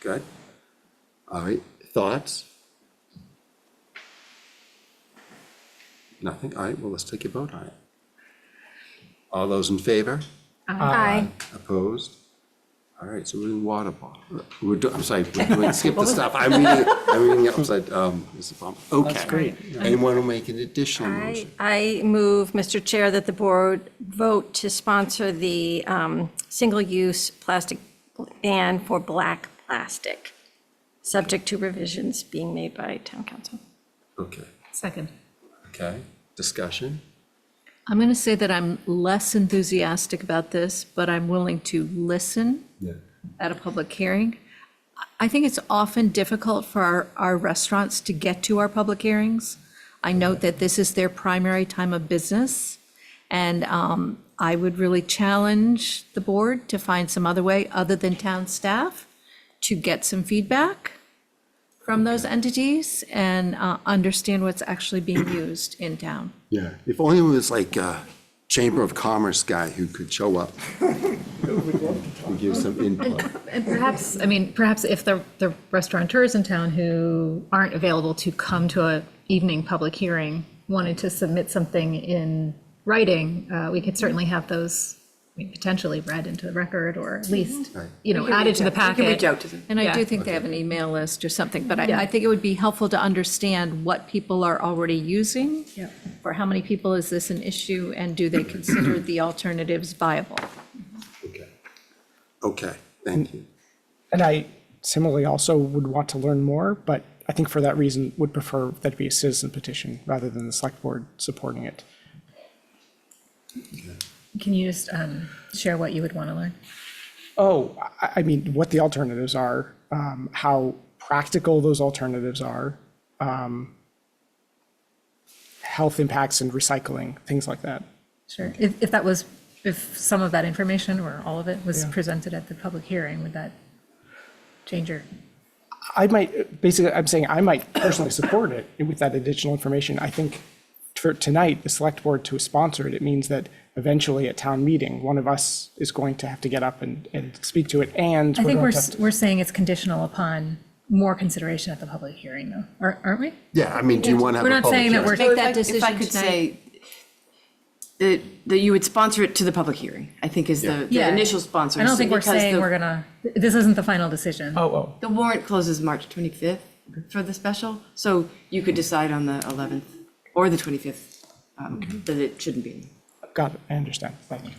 Good. All right, thoughts? Nothing? All right, well, let's take a vote on it. All those in favor? Aye. Opposed? All right, so we're in water bottle. We're, do- I'm sorry, we're doing, skip the stuff. I'm reading, I'm reading it upside, um, this is, um, okay. That's great. Anyone will make an additional I, motion? I move, Mr. Chair, that the board vote to sponsor the um, single-use plastic ban for black plastic, subject to revisions being made by town council. Okay, Second. okay, discussion? I'm going to say that I'm less enthusiastic about this, but I'm willing to listen Yeah. at a public hearing. I- I think it's often difficult for our, our restaurants to get to our public hearings. I note that this is their primary time of business, and um, I would really challenge the board to find some other way, other than town staff, to get some feedback from those entities and uh, understand what's actually being used in town. Yeah, if only it was like a Chamber of Commerce guy who could show up. And give some input. And perhaps, I mean, perhaps if the, the restaurateurs in town who aren't available to come to a evening public hearing wanted to submit something in writing, uh, we could certainly have those I mean, potentially read into the record or at least, you know, added to the packet. And I do Yeah. think they have an email list or something, but I, I think it would be helpful to understand what people are already using. For how many people is this an issue, and do they consider the alternatives viable? Okay. Okay, thank you. And I similarly also would want to learn more, but I think for that reason would prefer that it be a citizen petition rather than the select board supporting it. Can you just, um, share what you would want to learn? Oh, I, I mean, what the alternatives are, um, how practical those alternatives are, um, health impacts and recycling, things like that. Sure. If, if that was, if some of that information or all of it was presented at the public hearing, would that change your? I might, basically, I'm saying I might personally support it with that additional information. I think for tonight, the select board to sponsor it, it means that eventually at town meeting, one of us is going to have to get up and, and speak to it and. I think we're, going to have s- we're saying it's conditional upon more consideration at the public hearing, though, Ar- aren't we? Yeah, I mean, do you want to have We're a not public saying that hearing? we're, So Make if that I- If I decision could tonight. say that, that you would sponsor it to the public hearing, I think is the, the Yeah. initial sponsor. I don't So think we're because saying the- we're gonna, this isn't the final decision. to- Oh, oh, The warrant closes March 25th for the special, so you could decide on the 11th or the 25th Mm-hmm. um, that it shouldn't be. got it. I understand. Thank you.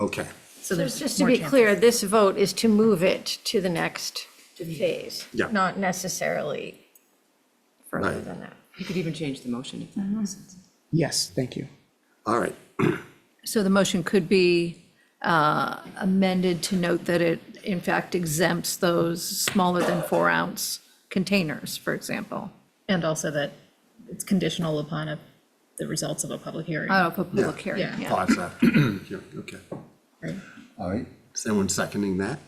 Okay, So there's Just to more be chances. clear, this vote is to move it to the next phase. Yeah. Not necessarily further Right. than that. You could even change the motion if that makes sense. Yes, thank you. all right, So the motion could be uh, amended to note that it, in fact, exempts those smaller than four ounce containers, for example, And also that it's conditional upon a- the results of a public hearing. out of a Oh, public hearing, Yeah. yeah. thoughts after, yeah, okay. right? All right, is anyone seconding that?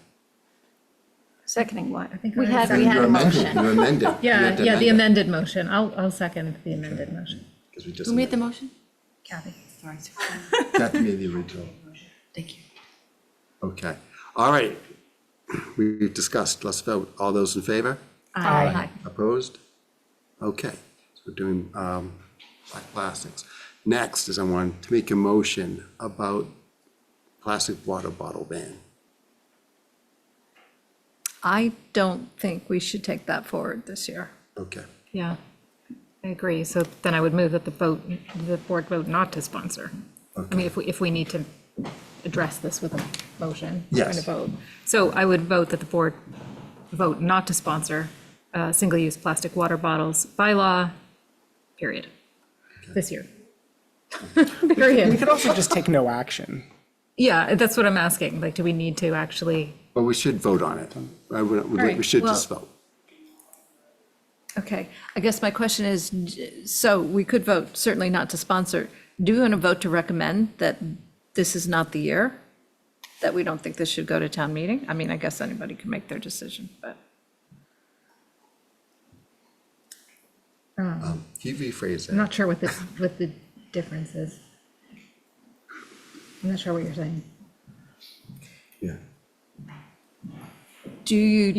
Seconding what? I think We I had, we had You're a amending, motion. you're amending. Yeah, yeah, the amended motion. I'll, I'll second the amended motion. Because we just, Who made the motion? Kathy? Sorry. Kathy made the original. Thank you. Okay, all right. We've discussed, let's vote. All those in favor? Aye. Opposed? Okay, so we're doing um, black plastics. Next is I want to make a motion about plastic water bottle ban. I don't think we should take that forward this year. Okay, Yeah, I agree. So then I would move that the vote, the board vote not to sponsor. I mean, if we, if we need to address this with a motion. we're going to Yes. vote. So I would vote that the board vote not to sponsor uh, single-use plastic water bottles by law, period, this year. We Period. could also just take no action. Yeah, that's what I'm asking. Like, do we need to actually? but we should vote on it. I would- We right, should well- just vote. Okay, I guess my question is, d- so we could vote certainly not to sponsor. Do we want to vote to recommend that this is not the year? That we don't think this should go to town meeting? I mean, I guess anybody can make their decision, but Can you rephrase I'm that? not sure what this, what the difference is. I'm not sure what you're saying. Yeah. do you